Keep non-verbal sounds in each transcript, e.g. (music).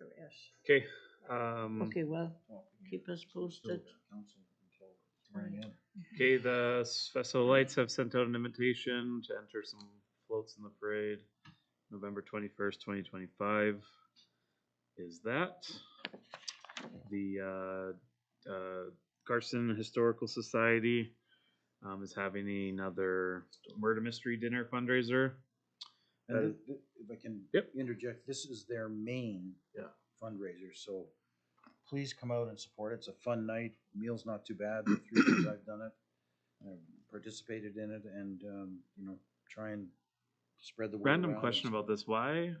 Yes. Okay, um, Okay, well, keep us posted. okay, the S- Festival of Lights have sent out an invitation to enter some floats in the parade, November twenty-first, twenty twenty-five. Is that the, uh, uh, Carson Historical Society, um, is having another murder mystery dinner fundraiser. That And is- thi- thi- if I can Uh, Yep. interject, this is their main Yeah. fundraiser, so please come out and support it. It's a fun night. Meal's not too bad. The three years I've done it, I've participated in it, and um, you know, try and spread the word. Uh, Random around. question about this, why,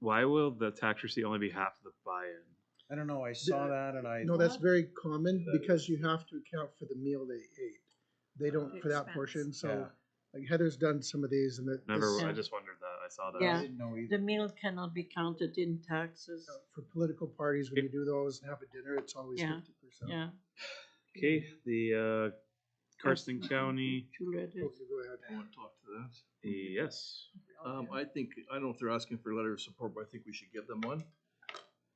why will the tax receipt only be half the buy-in? I don't know. I saw that, and I No, that's What? very common That because you have to account for the meal they ate. They don't for that Expense. portion, so Yeah. like Heather's done some of these and that. Never. this- I just wondered that. I saw that. Yeah. I didn't know The either. meal cannot be counted in taxes, For political parties, when you do those and have a dinner, it's always Yeah, fifty percent. yeah. Okay. The uh, Carson County. Tulare Go is- ahead. I want to talk to that. Yes. Um, I think, I don't know if they're asking for a letter of support, but I think we should give them one.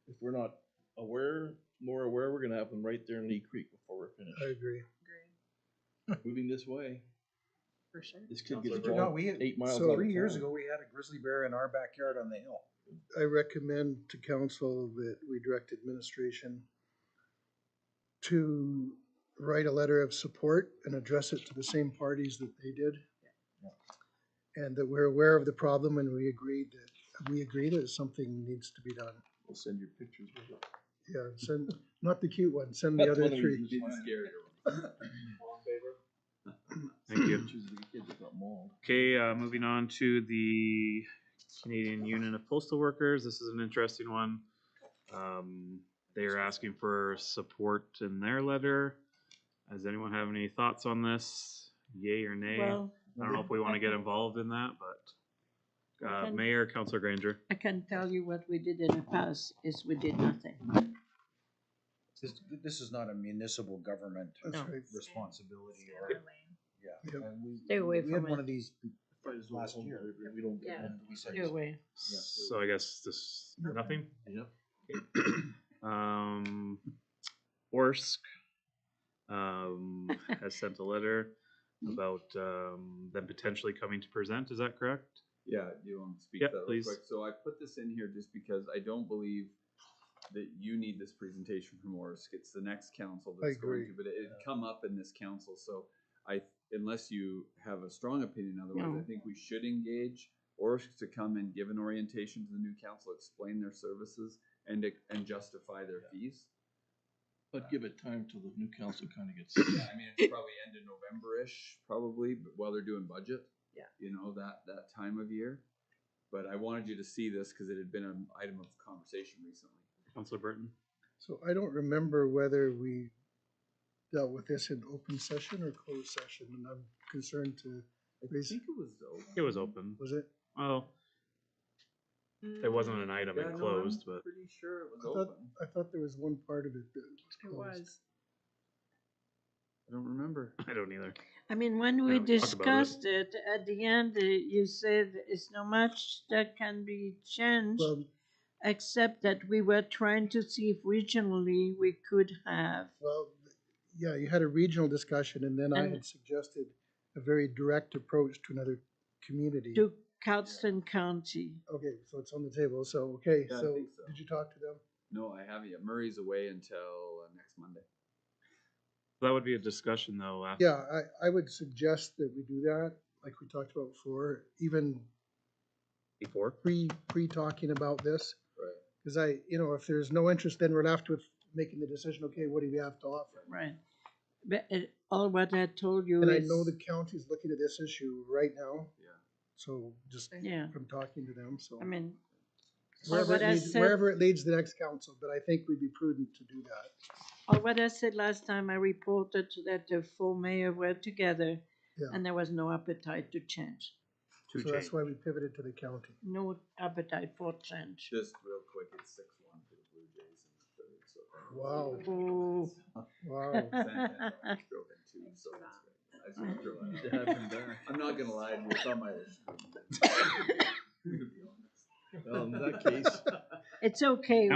If we're not aware, more aware, we're gonna have them right there in Lee Creek before we're I finished. agree. Moving this way, For sure. this kid Sounds gets like No, involved we had, eight miles out so of three years town. ago, we had a grizzly bear in our backyard on the hill. I recommend to council that we direct administration to write a letter of support and address it to the same parties that they did. And that we're aware of the problem and we agreed that, we agree that something needs to be done. We'll send your pictures. with it. Yeah, send, not the cute one, send That's the other one of three. the- the scarier one. Thank (clears throat) you. Pictures of the kid that got mauled. Okay. Uh, moving on to the Canadian Union of Postal Workers. This is an interesting one. Um, they are asking for support in their letter. Does anyone have any thoughts on this? Yay or nay? Well, I don't know if we want to get involved in that, but uh, Okay. Mayor, Councilor Granger. I can tell you what we did in the past is we did nothing. This, this is not a municipal government That's No. right. responsibility or, yeah. Yep. and we- Stay away We had from one it. of these Fight is last over. year. We don't get Yeah. it. and we said, Either way, So I guess this nothing. Yep. um, Orsk um, has sent a letter about um, them potentially coming to present. Is that correct? Yeah, do you want to speak Yeah, to that real please. quick? So I put this in here just because I don't believe that you need this presentation from Orsk. It's the next council I that's going agree. to, but it it'd come up in this council, so I, unless you have a strong opinion otherwise, No. I think we should engage Orsk to come and give an orientation to the new council, explain their services and, and justify their fees. But give it time till the new council kinda gets. Yeah, I mean, it's probably end of November-ish, probably, but while they're doing budget. Yeah. You know, that, that time of year. But I wanted you to see this because it had been an item of conversation recently. Councilor Burton. So I don't remember whether we dealt with this in open session or closed session, and I'm concerned to, I raise- think it was though. It was open. was it? Well, it wasn't an item it closed, but (laughs) Pretty sure it was I thought- open. I thought there was one part of it that it was closed. was. I don't remember. I don't either. I mean, when we Yeah, we talked about it. discussed it, at the end, uh, you said it's not much that can be changed, Well, except that we were trying to see if regionally we could have. well, yeah, you had a regional discussion, and then I And- had suggested a very direct approach to another community. to Cardston County. Okay, so it's on the table, so, okay, Yeah, I so, think so. did you talk to them? No, I haven't yet. Murray's away until uh, next Monday. That would be a discussion though. After. Yeah, I, I would suggest that we do that, like we talked about before, even Before. pre, pre-talking about this. Right. Because I, you know, if there's no interest, then we're left with making the decision, okay, what do we have to offer? Right. But uh, all what I told you And I is, know the county's looking at this issue right now. Yeah. So just yeah, from talking to them, so. I mean, or Wherever what it I leads, said, wherever it leads the next council, but I think we'd be prudent to do that. or what I said last time, I reported that the four mayor were together Yeah. and there was no appetite to change, Two So change. that's why we pivoted to the county. no appetite for change. Just real quick, it's six one for the Blue Jays in the Oh. Wow. third. So Wow. I drove in two, so that's great. I just wanna throw that out. I'm not gonna lie, to you, it's on my list. To be honest. (laughs) Well, in Um, that case. (laughs) It's okay,